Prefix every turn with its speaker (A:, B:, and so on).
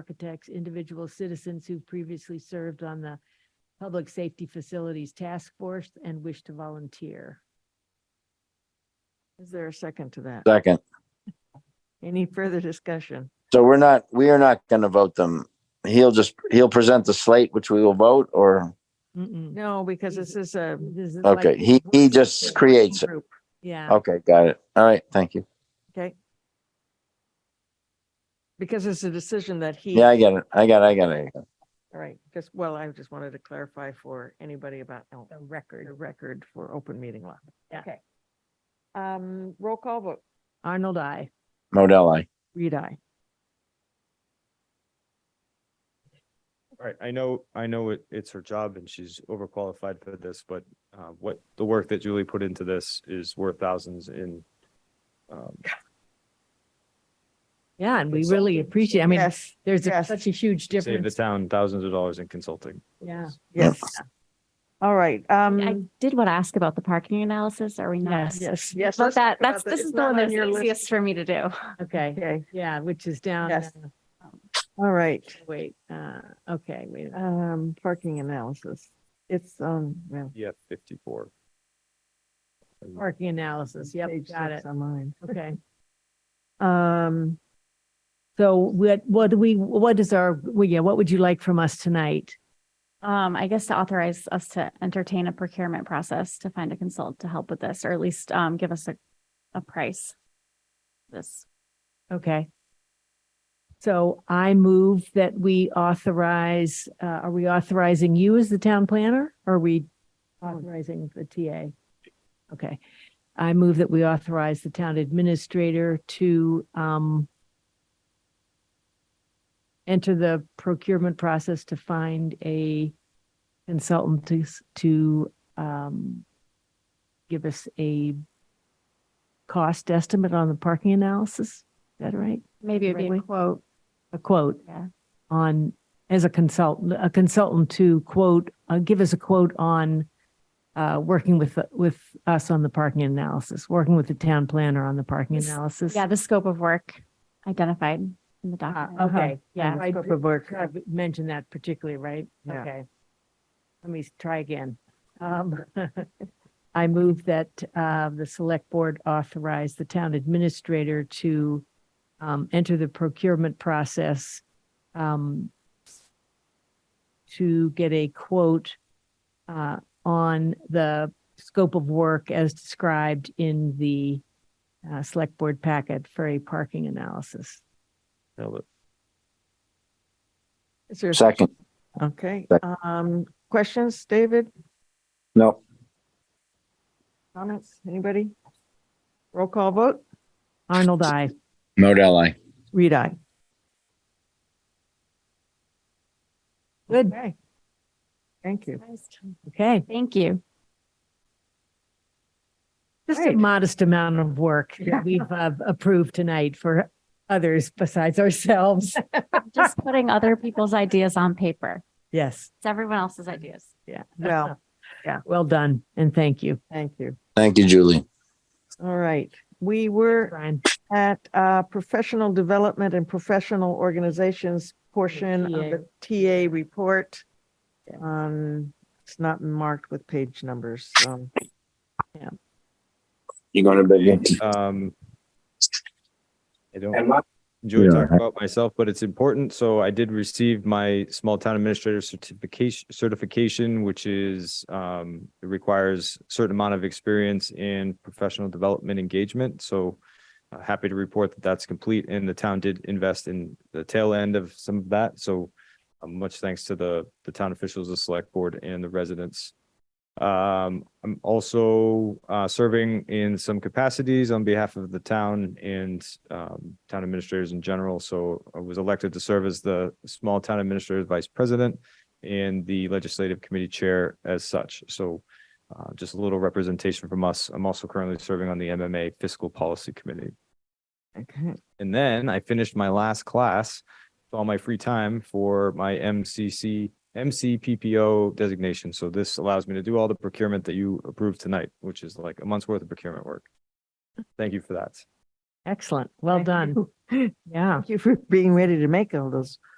A: architects, individual citizens who previously served on the Public Safety Facilities Task Force and wish to volunteer. Is there a second to that?
B: Second.
A: Any further discussion?
B: So we're not, we are not going to vote them. He'll just, he'll present the slate, which we will vote or,
A: No, because this is a, this is. like
B: okay, he, he just creates it. Oh.
A: group. Yeah,
B: Okay, got it. All right, thank you.
A: okay. Because it's a decision that he.
B: Yeah, I get it. I got, it. I got it. I got it.
A: All right, just, well, I just wanted to clarify for anybody about the record, the record for open meeting law. Okay. Um, roll call vote. Arnold, I.
B: Modell, aye.
A: Reed, I.
C: All right, I know, I know it, it's her job and she's overqualified for this, but uh, what, the work that Julie put into this is worth thousands in. um,
A: Yeah, and we really appreciate, I mean,
D: Yes,
A: there's a-
D: yes.
A: such a huge
C: Save the
A: difference.
C: town thousands of dollars in consulting.
A: Yeah.
D: yes. All right,
E: I
D: um,
E: did want to ask about the parking analysis. Are we not?
A: Yes,
D: yes,
E: But
D: let's
E: that,
D: talk about
E: that's,
D: that.
E: this
D: It's
E: is the
D: not
E: one
D: on
E: that's
D: your list.
E: easiest for me to do.
A: okay,
D: Okay,
A: yeah, which is down.
D: Yes.
A: uh,
D: all right,
A: Wait, uh, okay, wait, uh, a minute.
D: um, parking analysis. It's, um, well.
C: Yeah, fifty-four.
A: parking analysis, yep,
D: page
A: got it,
D: six On mine.
A: okay.
D: Um,
A: So what, what do we, what is our, well, yeah, what would you like from us tonight?
E: Um, I guess to authorize us to entertain a procurement process to find a consultant to help with this, or at least, um, give us a, a price. This,
A: Okay. So I move that we authorize, uh, are we authorizing you as the town planner? Or Are we authorizing the TA? Okay. I move that we authorize the town administrator to, um, enter the procurement process to find a consultant to, s- to, um, give us a cost estimate on the parking analysis? Is that right?
E: maybe it'd be a
A: Right.
E: quote.
A: A quote
E: Yeah.
A: on, as a consultant, a consultant to quote, uh, give us a quote on uh, working with, with us on the parking analysis, working with the town planner on the parking
E: Yes.
A: analysis.
E: Yeah, the scope of work identified in the
A: Ah,
E: document.
A: Okay, yeah.
E: Yeah.
A: I
D: Uh-huh. scope of work.
A: mentioned that particularly, right?
D: Yeah.
A: Okay. Let me try again. Um, I move that uh, the select board authorize the town administrator to um, enter the procurement process um, to get a quote uh, on the scope of work as described in the uh, select board packet for a parking analysis.
C: Nailed it.
D: is there,
B: Second.
D: okay,
B: Sec-
D: um, questions, David,
B: No.
D: comments, anybody? Roll call vote,
A: Arnold, I.
B: Modell, aye.
D: read I.
A: Good.
D: Okay. Thank you.
A: Okay.
E: Thank you.
A: Just a
D: Right.
A: modest amount of work
D: Yeah.
A: that we've uh, approved tonight for others besides ourselves.
E: Just putting other people's ideas on paper.
A: Yes,
E: It's everyone else's ideas.
A: yeah.
D: Well,
A: Well done and thank you,
D: thank you.
B: Thank you, Julie.
D: All right, we were
A: Brian.
D: at uh, professional development and professional organizations portion of the TA report. Um, It's not marked with page numbers, so.
B: You going to bed?
C: Um, I don't.
B: yet?
C: enjoy
B: Yeah,
C: talking
B: I-
C: about myself, but it's important. So I did receive my small town administrator certification certification, which is um it requires a certain amount of experience in professional development engagement. So uh, happy to report that that's complete and the town did invest in the tail end of some of that. So uh, much thanks to the the town officials, the select board and the residents. Um, I'm also uh serving in some capacities on behalf of the town and um town administrators in general. So I was elected to serve as the small town administrator's vice president and the legislative committee chair as such. So uh just a little representation from us. I'm also currently serving on the MMA Fiscal Policy Committee.
D: Okay.
C: And then I finished my last class, with all my free time for my MCC, MCPPO designation. So this allows me to do all the procurement that you approved tonight, which is like a month's worth of procurement work. Thank you for that.
A: Excellent. Well
D: Thank
A: done.
D: you.
A: Yeah.
D: Thank you for being ready to make all those